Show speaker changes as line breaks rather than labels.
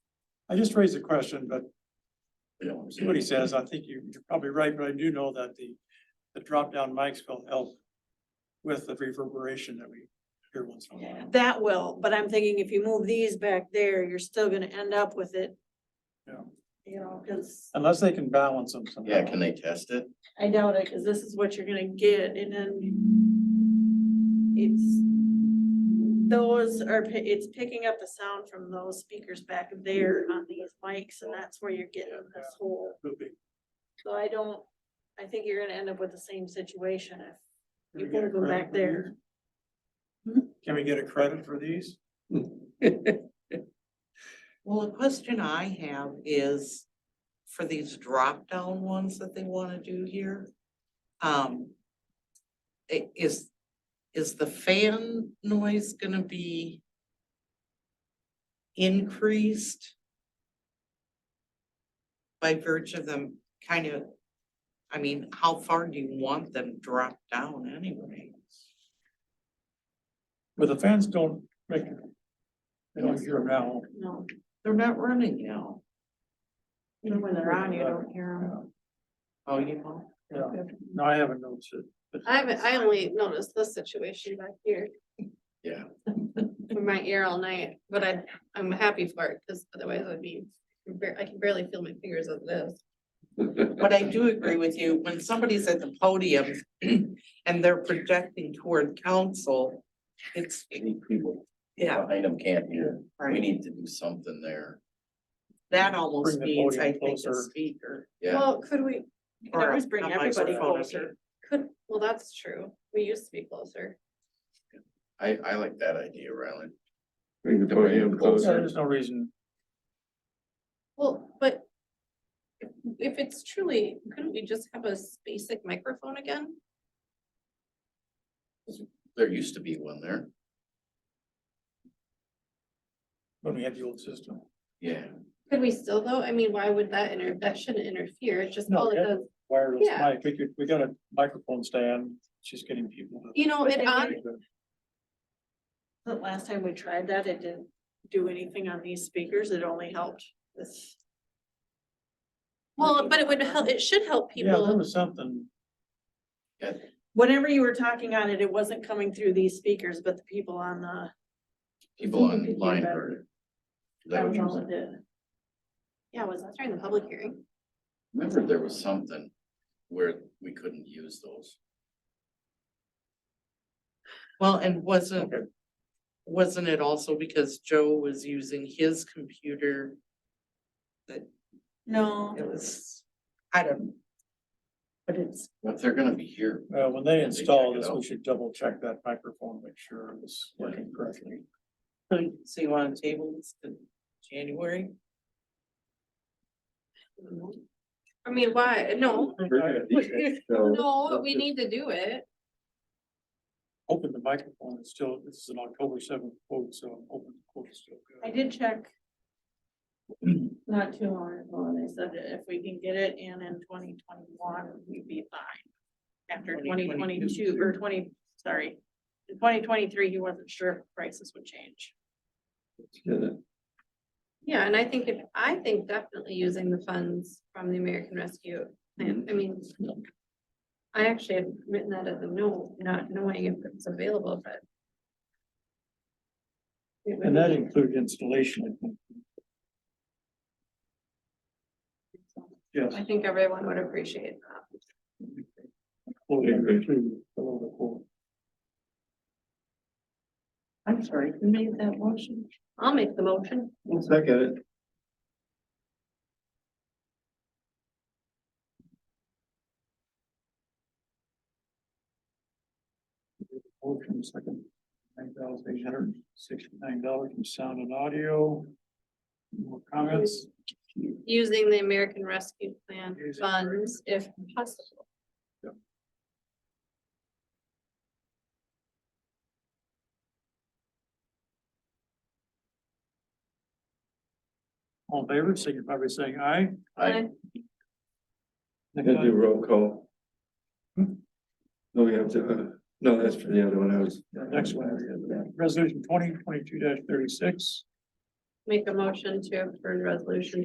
I just raised a question, but see what he
Somebody
says. I think you- you're probably right, but I do know that the, the drop down mics will help with the reverberation that we hear once in a while.
That will, but I'm thinking if you move these back there, you're still gonna end up with it,
Yeah.
you know, cause
Unless they can balance them somehow.
Yeah, can they test it?
I doubt it, cause this is what you're gonna get and then it's those are, pi- it's picking up the sound from those speakers back there on these mics and that's where you're getting this whole,
Could be.
so I don't, I think you're gonna end up with the same situation if
Can we
You
get a
gotta go
credit
back
for these? Hmm? Can we get a credit for these?
Well, the question I have is for these drop-down ones that they wanna do here. Um. i- Is, is the fan noise gonna be increased? By virtue of them kind of, I mean, how far do you want them dropped down anyway?
But the fans don't make, they don't hear them now.
No,
They're not running now.
even when they're on, you don't hear them.
Oh, you know?
Yeah, no, I haven't noticed it. but-
I haven't, I only noticed this situation back here.
Yeah.
In my ear all night, but I, I'm happy for it, cause otherwise I'd be, bar- I can barely feel my fingers on this.
But I do agree with you, when somebody's at the podium and they're projecting toward council, it's,
Any people
yeah,
behind them can't hear. We
right,
need to do something there.
that almost
Bring the
means, I
podium
think, a
closer.
speaker.
Yeah,
Well, could we,
You can
or
always
a-
bring
a
everybody
microphone.
closer.
could, well, that's true. We used to be closer.
I, I like that idea, Rylan.
Bring the
Bring it
Yeah,
closer.
podium closer.
There's no reason.
Well, but if- if it's truly, couldn't we just have a s- basic microphone again?
There used to be one there.
When we had the old system.
Yeah.
Could we still though? I mean, why would that inter, that shouldn't interfere. It's just
No,
all it
that-
does.
Wireless
Yeah.
mic, we could, we got a microphone stand, just getting people. to-
You know,
But
it
they
on,
The last time we tried that, it didn't do anything on these speakers, it only helped this.
well, but it would help, it should help
Yeah, there
people.
was something.
Whenever you were talking on it, it wasn't coming through these speakers, but the people on the,
People
Think it'd be
online
better.
heard it. Is that
that
what
was
you're
all
saying?
it did.
Yeah, was that during the public hearing?
Remember there was something where we couldn't use those.
Well, and wasn't, wasn't it also because Joe was using his computer?
No,
It was, I don't, know. but it's,
But they're gonna be here.
Uh, when they
Yeah, they
install
check it
this, we
out.
should double check that microphone, make sure it's working correctly.
so so you want to table this to January?
I mean, why? No,
Mm-hmm.
So,
no, we need to do it.
Open the microphone, it's still, this is an October seventh quote, so I'm hoping the quote is still
I
good.
did check. Not too long ago, and they said that if we can get it in in twenty twenty-one, we'd be fine. After twenty
2022.
twenty-two, or twenty, sorry, in twenty twenty-three, he wasn't sure if prices would change.
Yeah, and I think if, I think definitely using the funds from the American Rescue Plan, I mean. I actually had written that as a no, not knowing if it's available, but. it would
And that
be-
included installation. I think. Yes.
I think everyone would appreciate that.
quote number two, below the quote.
I'm sorry, who made that motion?
I'll make the motion.
Second it.
Motion second, nine thousand eight hundred sixty-nine dollars from sound and audio. More comments?
Using the American Rescue Plan
Using-
funds if possible.
All in favor, signify by saying aye.
I,
Next
Gonna do
item.
roll call. No, we have to, uh, no, that's for the other one, I was.
The Next one, resolution twenty twenty-two thirty-six.
make a motion to approve resolution